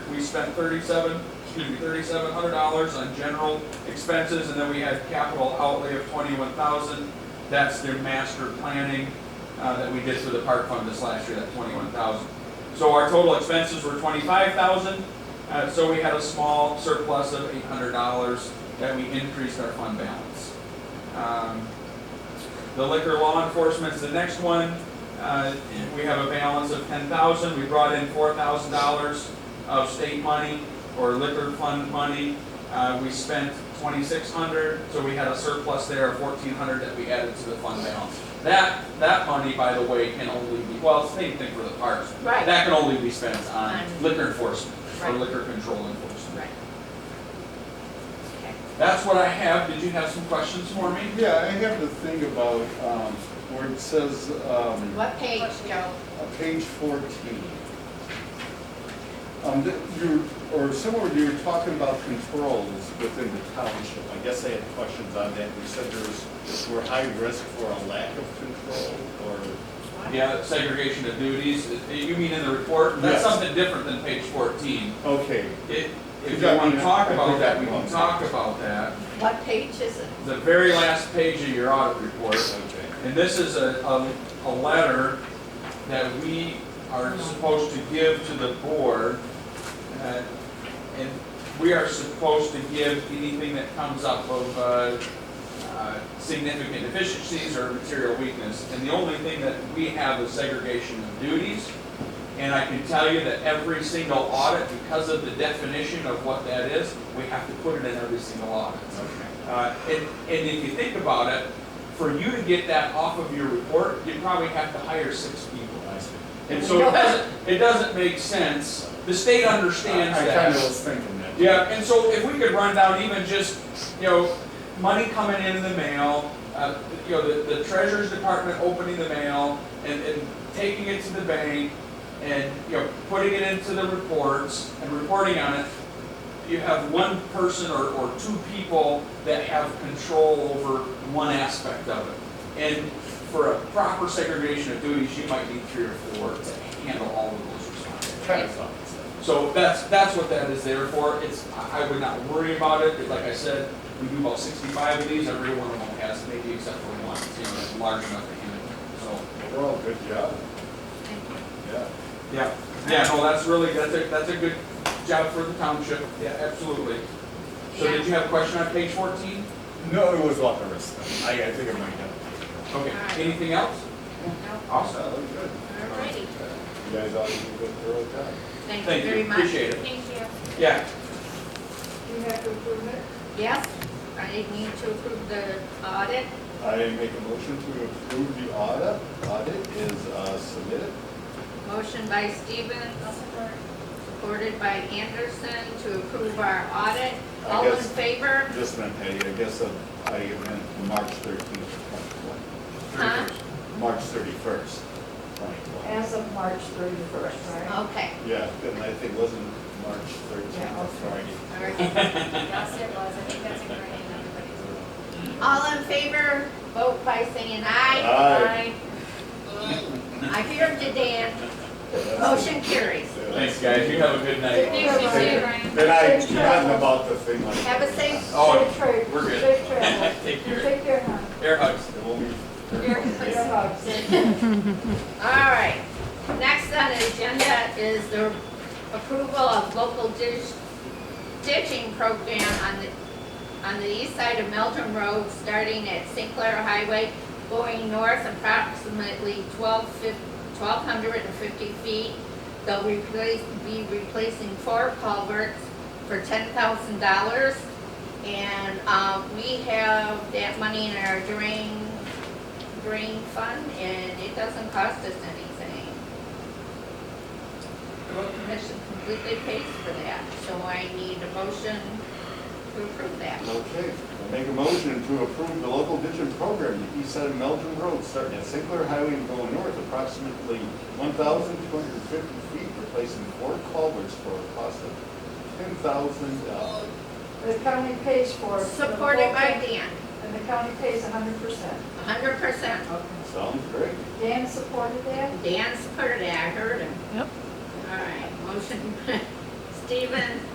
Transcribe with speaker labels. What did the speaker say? Speaker 1: spent thirty-seven, excuse me, thirty-seven hundred dollars on general expenses, and then we had capital outlay of twenty-one thousand. That's their master planning, uh, that we did for the park fund this last year, that twenty-one thousand. So our total expenses were twenty-five thousand, uh, so we had a small surplus of eight hundred dollars that we increased our fund balance. Um, The liquor law enforcement's the next one. Uh, we have a balance of ten thousand, we brought in four thousand dollars of state money or liquor fund money. Uh, we spent twenty-six hundred, so we had a surplus there of fourteen hundred that we added to the fund balance. That, that money, by the way, can only be, well, it's the same thing for the parks.
Speaker 2: Right.
Speaker 1: That can only be spent on
Speaker 2: On-
Speaker 1: liquor enforcement or
Speaker 2: Right.
Speaker 1: liquor control enforcement.
Speaker 2: Right. Okay.
Speaker 1: That's what I have. Did you have some questions for me?
Speaker 3: Yeah, I have to think about, um, where it says, um,
Speaker 2: What page, Joe?
Speaker 3: uh, page fourteen. Um, that you, or somewhere you were talking about controls within the township. I guess I had questions on that. You said there's, we're high risk for a lack of control or?
Speaker 1: Yeah, segregation of duties. Uh, You mean in the report? That's
Speaker 3: Yes.
Speaker 1: something different than page fourteen.
Speaker 3: Okay,
Speaker 1: It, if you
Speaker 3: Yeah,
Speaker 1: want to
Speaker 3: yeah,
Speaker 1: talk
Speaker 3: I
Speaker 1: about
Speaker 3: think
Speaker 1: that,
Speaker 3: that
Speaker 1: we can
Speaker 3: belongs.
Speaker 1: talk about that.
Speaker 2: What page is it?
Speaker 1: The very last page of your audit report,
Speaker 3: okay.
Speaker 1: and this is a, a, a letter that we are supposed to give to the board. uh, And we are supposed to give anything that comes up of, uh, uh, significant deficiencies or material weakness. And the only thing that we have is segregation of duties. And I can tell you that every single audit, because of the definition of what that is, we have to put it in every single audit. Uh, And, and if you think about it, for you to get that off of your report, you probably have to hire six people. And so it doesn't, it doesn't make sense. The state understands
Speaker 3: I
Speaker 1: that.
Speaker 3: kind of was thinking that.
Speaker 1: Yeah, and so if we could run down even just, you know, money coming in the mail, uh, you know, the, the treasurer's department opening the mail and, and taking it to the bank and, you know, putting it into the reports and reporting on it, you have one person or, or two people that have control over one aspect of it. And for a proper segregation of duties, you might need three or four to handle all of those responsibilities.
Speaker 3: Kind of thought so.
Speaker 1: So that's, that's what that is there for, it's, I I would not worry about it, But like I said, we do about sixty-five of these, every one of them has, maybe except for one, you know, that's large enough to handle, so.
Speaker 3: Overall, good job,
Speaker 2: Thank you.
Speaker 3: yeah.
Speaker 1: Yeah. Yeah, no, that's really, that's a, that's a good job for the township, yeah, absolutely. So did you have a question on page fourteen?
Speaker 3: No, it was a lot of risk. I, I think it might have.
Speaker 1: Okay, anything else? Awesome,
Speaker 3: that was good.
Speaker 2: Alrighty,
Speaker 3: You guys all did a good thorough job.
Speaker 2: thank
Speaker 1: Thank
Speaker 2: you
Speaker 1: you.
Speaker 2: very much.
Speaker 1: Appreciate it.
Speaker 2: Thank you.
Speaker 1: yeah,
Speaker 4: You have to approve it?
Speaker 2: Yes, I need to approve the audit.
Speaker 3: I make a motion to approve the audit. Audit is uh, submitted.
Speaker 2: Motion by Stevens, supported by Anderson to approve our audit.
Speaker 3: I
Speaker 2: All in
Speaker 3: guess-
Speaker 2: favor?
Speaker 3: Just meant, hey, I guess uh, I meant March thirteenth,
Speaker 2: Huh?
Speaker 3: twenty-one. March thirty-first, twenty-one.
Speaker 4: As of March thirty-first, right?
Speaker 2: Okay.
Speaker 3: Yeah, and I think wasn't March thirteenth,
Speaker 4: Yeah,
Speaker 3: or
Speaker 4: okay.
Speaker 2: All
Speaker 3: Friday.
Speaker 2: right.
Speaker 5: Yes, it was. I think that's a great name, everybody's.
Speaker 2: All in favor, vote by saying aye.
Speaker 3: Aye.
Speaker 2: Aye. I hear you, Dan. Motion carries.
Speaker 1: thanks, guys, you have a good night.
Speaker 5: Thanks, you too, Brian.
Speaker 3: Then I, forgotten about the thing like.
Speaker 2: Have a safe-
Speaker 1: Oh,
Speaker 4: Safe trip.
Speaker 1: we're good.
Speaker 4: Safe travel.
Speaker 1: Take care,
Speaker 4: Take care, hon.
Speaker 1: air hugs.
Speaker 3: It won't be-
Speaker 4: Your hugs.
Speaker 2: All right, next on the agenda is the approval of local ditch, ditching program on the, on the east side of Melton Road, starting at St. Clair Highway, going north approximately twelve fif, twelve hundred and fifty feet. They'll replace, be replacing four culverts for ten thousand dollars. And, um, we have that money in our drain green fund, and it doesn't cost us anything. The road commission completely pays for that, so I need a motion to approve that.
Speaker 3: Okay, I make a motion to approve the local ditching program, the east side of Melton Road, starting at St. Clair Highway and going north approximately one thousand two hundred and fifty feet, replacing four culverts for a cost of ten thousand dollars.
Speaker 4: The county pays for it.
Speaker 2: Supported by Dan,
Speaker 4: And the county pays hundred percent.
Speaker 2: hundred percent.
Speaker 3: Sounds great.
Speaker 4: Dan supported that?
Speaker 2: Dan supported it, I heard him. Yep. All right, motion, Stephen